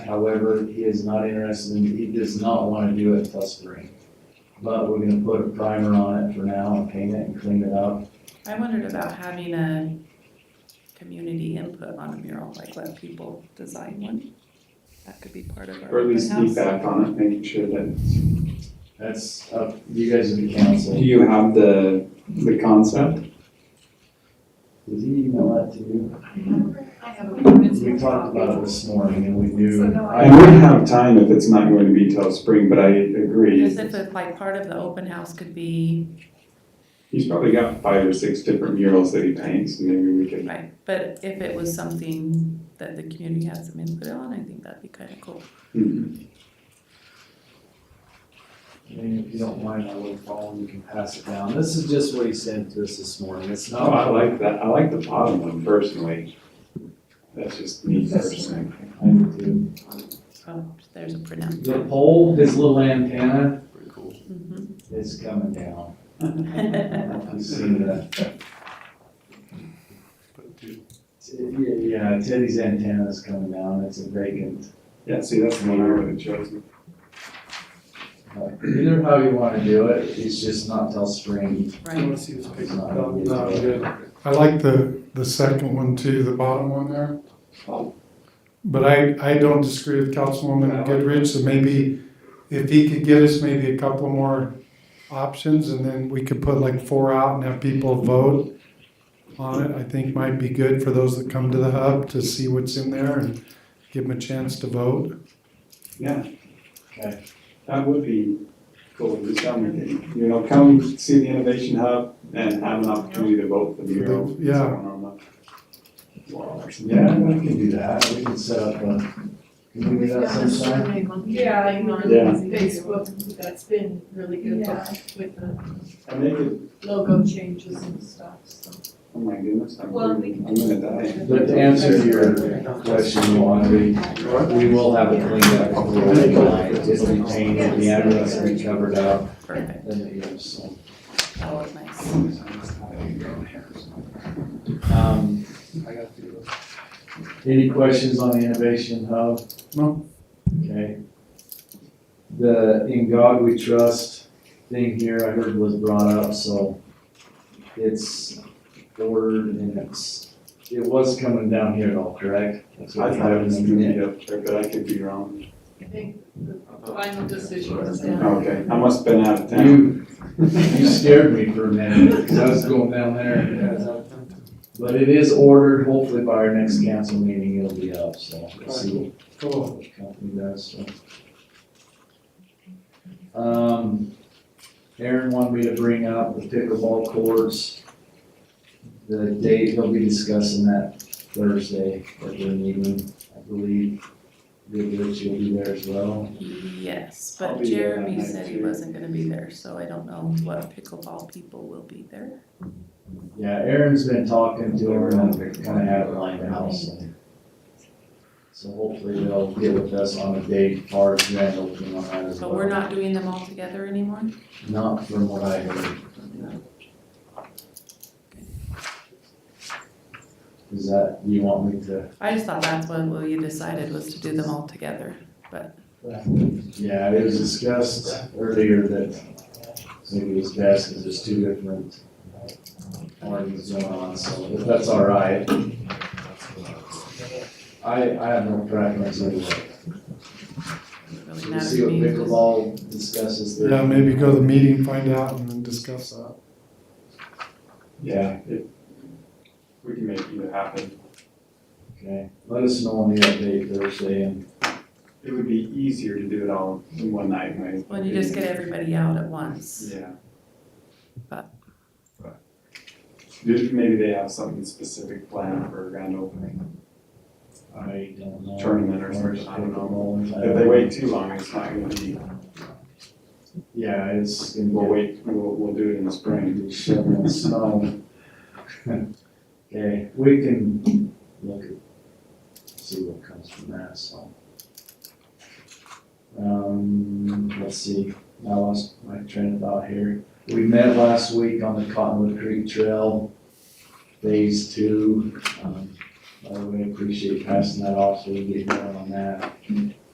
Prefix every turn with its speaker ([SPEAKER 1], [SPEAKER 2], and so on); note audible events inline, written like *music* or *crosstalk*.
[SPEAKER 1] However, he is not interested in, he does not want to do it plus three. But we're gonna put a primer on it for now and paint it and clean it up.
[SPEAKER 2] I wondered about having a community input on a mural, like let people design one. That could be part of our
[SPEAKER 3] Or at
[SPEAKER 2] open
[SPEAKER 3] least
[SPEAKER 2] house.
[SPEAKER 3] feedback on it, making sure that,
[SPEAKER 1] That's up, you guys are the
[SPEAKER 3] do
[SPEAKER 1] council.
[SPEAKER 3] you have the, the concept?
[SPEAKER 1] Did he email that to you?
[SPEAKER 4] I have a permit.
[SPEAKER 1] We talked about it this morning and we knew.
[SPEAKER 3] I would have time if it's not going to be till spring, but I agree.
[SPEAKER 2] Just if it's like part of the open house could be,
[SPEAKER 3] He's probably got five or six different murals that he paints, and maybe we could,
[SPEAKER 2] right, but if it was something that the community had some input on, I think that'd be kinda cool.
[SPEAKER 3] Hmm.
[SPEAKER 1] I mean, if you don't mind, I will follow, you can pass it down. This is just what he sent to us this morning. It's
[SPEAKER 3] oh, I
[SPEAKER 1] not,
[SPEAKER 3] like that, I like the bottom one personally. That's just me personally.
[SPEAKER 1] I do.
[SPEAKER 2] Oh, there's a printout.
[SPEAKER 1] The pole, his little antenna
[SPEAKER 2] Mhm.
[SPEAKER 1] is coming down.
[SPEAKER 2] Mm-hmm.
[SPEAKER 1] I've seen that. Yeah, yeah, Teddy's antenna is coming down. It's a vacant
[SPEAKER 3] Yeah, see, that's the one I would have chosen.
[SPEAKER 1] Either how you wanna do it, it's just not till spring.
[SPEAKER 2] Right.
[SPEAKER 1] It's not gonna get to it.
[SPEAKER 5] I like the, the second one too, the bottom one there. But I, I don't disagree with Councilwoman Goodrich, so maybe if he could get us maybe a couple more options and then we could put like four out and have people vote on it, I think might be good for those that come to the hub to see what's in there and give them a chance to vote.
[SPEAKER 3] Yeah.
[SPEAKER 1] Okay.
[SPEAKER 3] That would be cool, just come, you know, come see the Innovation Hub and have an opportunity to vote for the mural.
[SPEAKER 5] Yeah.
[SPEAKER 1] Yeah, we can do that, we can set up a, can we do that sometime?
[SPEAKER 4] Yeah, I'm on
[SPEAKER 3] Yeah.
[SPEAKER 4] Facebook, that's been really good with the
[SPEAKER 3] And they could,
[SPEAKER 4] logo changes and stuff, so.
[SPEAKER 3] oh my goodness, I'm,
[SPEAKER 4] Well, we can-
[SPEAKER 3] I'm gonna die.
[SPEAKER 1] But to answer your question, Juan, we, we will have it cleaned up a little tonight, it'll be painted, the address will be covered up,
[SPEAKER 2] Perfect,
[SPEAKER 1] and it is, so.
[SPEAKER 2] that was nice.
[SPEAKER 1] Um, Any questions on the innovation hub?
[SPEAKER 5] No.
[SPEAKER 1] Okay. The In God We Trust thing here, I heard was brought up, so it's ordered and it's, it was coming down here at all, correct? That's what
[SPEAKER 3] I thought it was gonna
[SPEAKER 1] happened.
[SPEAKER 3] be up there, but I could be wrong.
[SPEAKER 4] I think the final decision is down.
[SPEAKER 3] Okay, I must've been out
[SPEAKER 1] *laughs*
[SPEAKER 3] of town.
[SPEAKER 1] You, you scared me for a minute, because I was going down there. But it is ordered, hopefully by our next council meeting, it'll be up, so we'll see what
[SPEAKER 5] Cool.
[SPEAKER 1] which company does, so. Um, Aaron wanted me to bring up the pickleball courts. The date, they'll be discussing that Thursday at their meeting, I believe. Goodrich, you'll be there as well.
[SPEAKER 2] Yes,
[SPEAKER 3] I'll
[SPEAKER 2] but
[SPEAKER 3] be there that
[SPEAKER 2] Jeremy
[SPEAKER 3] night
[SPEAKER 2] said he
[SPEAKER 3] too.
[SPEAKER 2] wasn't gonna be there, so I don't know what pickleball people will be there.
[SPEAKER 1] Yeah, Aaron's been talking to her and kind of have it lined out, so. So hopefully they'll get with us on a date, far as grand opening on that as well.
[SPEAKER 2] But we're not doing them all together anymore?
[SPEAKER 1] Not from what I heard. Is that, you want me to?
[SPEAKER 2] I just thought that's what we decided was to do them all together.
[SPEAKER 1] Yeah, it was discussed earlier that maybe it's best because there's two different parties going on, so if that's all right. I, I have no preference anyway.
[SPEAKER 2] Doesn't really
[SPEAKER 1] So We'll
[SPEAKER 2] matter
[SPEAKER 1] see
[SPEAKER 2] to
[SPEAKER 1] what
[SPEAKER 2] me, just-
[SPEAKER 1] pickleball discusses there.
[SPEAKER 5] Yeah, maybe go to the meeting, find out and then discuss that.
[SPEAKER 3] Yeah, it, we can make it happen.
[SPEAKER 1] Okay, let us know on the update Thursday and
[SPEAKER 3] It would be easier to do it all in one night, right?
[SPEAKER 2] When you just get everybody out at once.
[SPEAKER 3] Yeah.
[SPEAKER 2] But-
[SPEAKER 3] Just Maybe they have something specific planned for a grand opening.
[SPEAKER 1] I don't know.
[SPEAKER 3] Tournament or something, I don't
[SPEAKER 1] know.
[SPEAKER 3] If they wait too long, it's not gonna be,
[SPEAKER 1] Yeah, it's gonna
[SPEAKER 3] we'll
[SPEAKER 1] be
[SPEAKER 3] wait, we'll, we'll do it in the spring.
[SPEAKER 1] rain, shoveling *laughs* snow. Okay, we can look at, see what comes from that, so. Um, let's see, I lost my train of thought here. We met last week on the Cottonwood Creek Trail, phase two. Um, I really appreciate passing that off so we can get going on that.